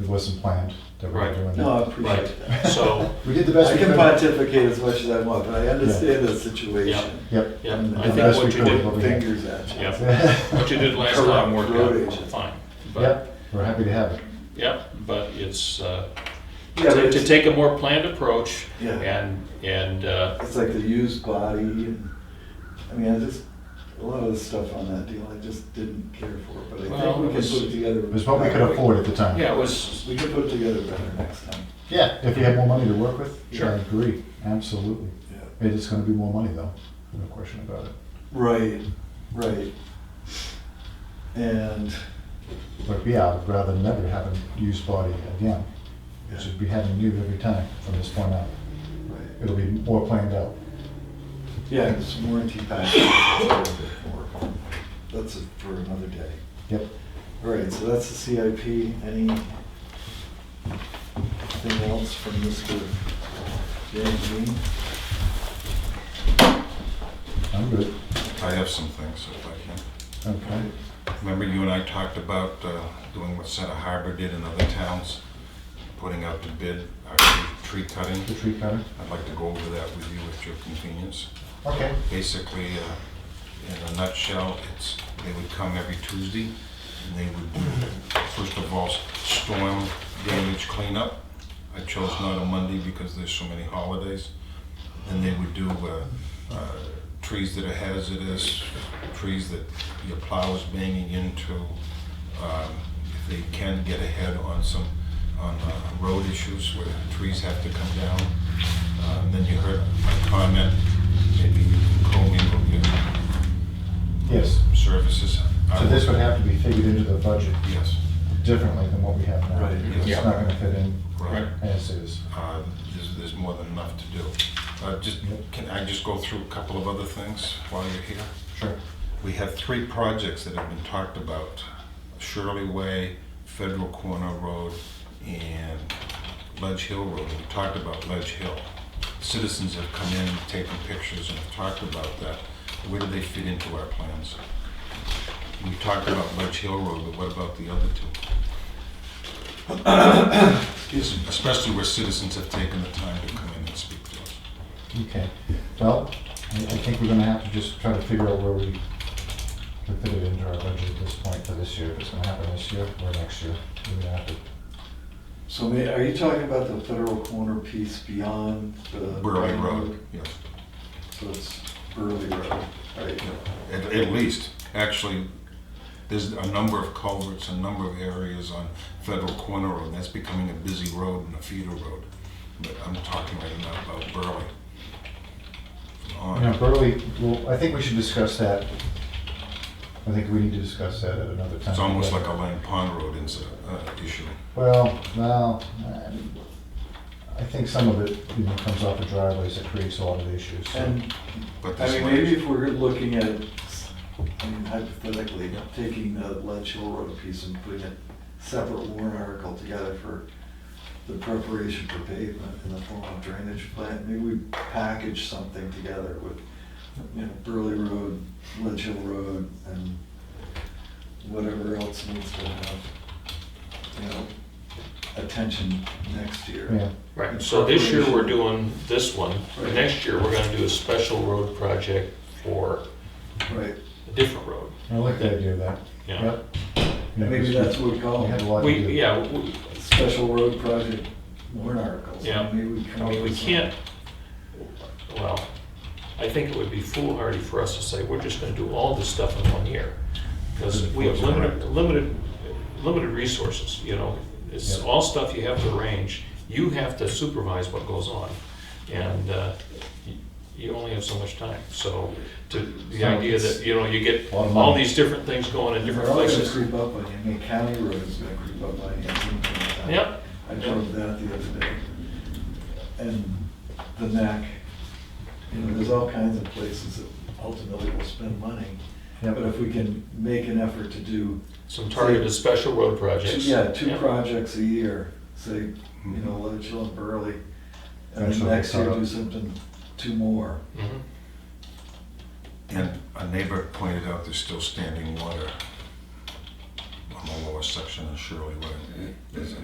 It wasn't planned that we were Right. doing No, I that. Right, appreciate that. so, We did the best I we could. can pontificate as much as I want, but I understand the situation. Yep. yeah, And I the think best what we you could. did, Looking at- Fingers at you. yeah, what you did last time worked Correct. out fine. But, Yep, we're happy to have it. yeah, but it's, uh, Yeah, to but to it's- take a more planned approach Yeah. and, and, uh, It's like the used body, and, I mean, I just, a lot of the stuff on that deal, I just didn't care for, but I think Well, we it can was- put it together. It was what we could afford at the time. yeah, it was, We can put it together better next time. Yeah, if we had more money to work with, Sure. I agree, absolutely. Yeah. It is gonna be more money though, no question about it. Right, right. And, But yeah, I'd rather never have a used body again. yeah, It should be having new every time from this point out. right. It'll be more planned out. yeah, and some warranty package. That's it for another day. Yep. All right, so that's the CIP. Anything else from Mr. James Dean? I'm good. I have some things if I Okay. can. Remember you and I talked about uh, doing what Santa Harbor did in other towns, putting out to bid our tree cutting? The tree cutter? I'd like to go over that with you at your convenience. Okay. Basically, uh, in a nutshell, it's, they would come every Tuesday, and they would do, first of all, storm damage cleanup. I chose not a Monday because there's so many holidays. And they would do uh, uh, trees that are hazardous, trees that your plow is banging into. um, If they can get ahead on some, on uh, road issues where trees have to come down. Uh, And then you heard my comment, maybe you can commingle your Yes. services. So this would have to be figured into the budget Yes, differently than what we have now. Right. It's Yeah. not gonna fit in right. Right. as is. Uh, There's, there's more than enough to do. Uh, Just, can I just go through a couple of other things while you're here? Sure. We have three projects that have been talked about. Shirley Way, Federal Corner Road, and Ledge Hill Road. We talked about Ledge Hill. Citizens have come in, taken pictures, and have talked about that. Where do they fit into our plans? We talked about Ledge Hill Road, but what about the other two? Excuse me. Especially where citizens have taken the time to come in and speak to us. Okay. Well, I I think we're gonna have to just try to figure out where we can fit it into our budget at this point for this year. If it's gonna happen this year or next year, we're gonna have to So may, are you talking about the federal corner piece beyond the? Burley Road, yes. So it's Burley Road, right? At, at least, actually, there's a number of culverts, a number of areas on Federal Corner Road, that's becoming a busy road and a feeder road. But I'm talking right now about Burley. You know, On, Burley, well, I think we should discuss that. I think we need to discuss that at another time. it's almost like a Lang Pond Road incident, uh, issue. Well, well, I- I think some of it, you know, comes off the driveways that creates a lot of issues. so- And, But I this mean, one- maybe if we're looking at, I mean hypothetically, taking the Ledge Hill Road piece and putting a separate warrant article together for the preparation for pavement in the form of drainage plan, maybe we package something together with, you know, Burley Road, Ledge Hill Road, and whatever else needs to have, you know, attention next year. Yeah, right, so this year we're doing this one. Next year, we're gonna do a special road project for Right, a different road. I like the idea of that. Yeah. Yep. Yeah, maybe 'cause that's what we call We have a it. lot to do. We, yeah, we- special road project warrant articles. Yeah. Maybe we uh, come I up mean, we with some- can't, well, I think it would be foolhardy for us to say, we're just gonna do all this stuff in one year. Because we have limited, limited, limited resources, you know? It's Yeah. all stuff you have to arrange. You have to supervise what goes on. And uh, y- you only have so much time. So to, the So idea it's- that, you know, you get A lot of all money. these different things going in They're different all gonna places. creep up on you, I mean, county road is gonna creep up on you. at some point in time. Yep. I drove that the other day. And the neck, you know, there's all kinds of places that ultimately will spend money. Yep. But if we can make an effort to do, Some targeted special road projects. yeah, two projects a year, say, you know, Ledge Hill and Burley. Mm-hmm. And then Actually, next year uh, do something, two more. Mhm. And a neighbor pointed out there's still standing water on the lower section of Shirley Way. There's a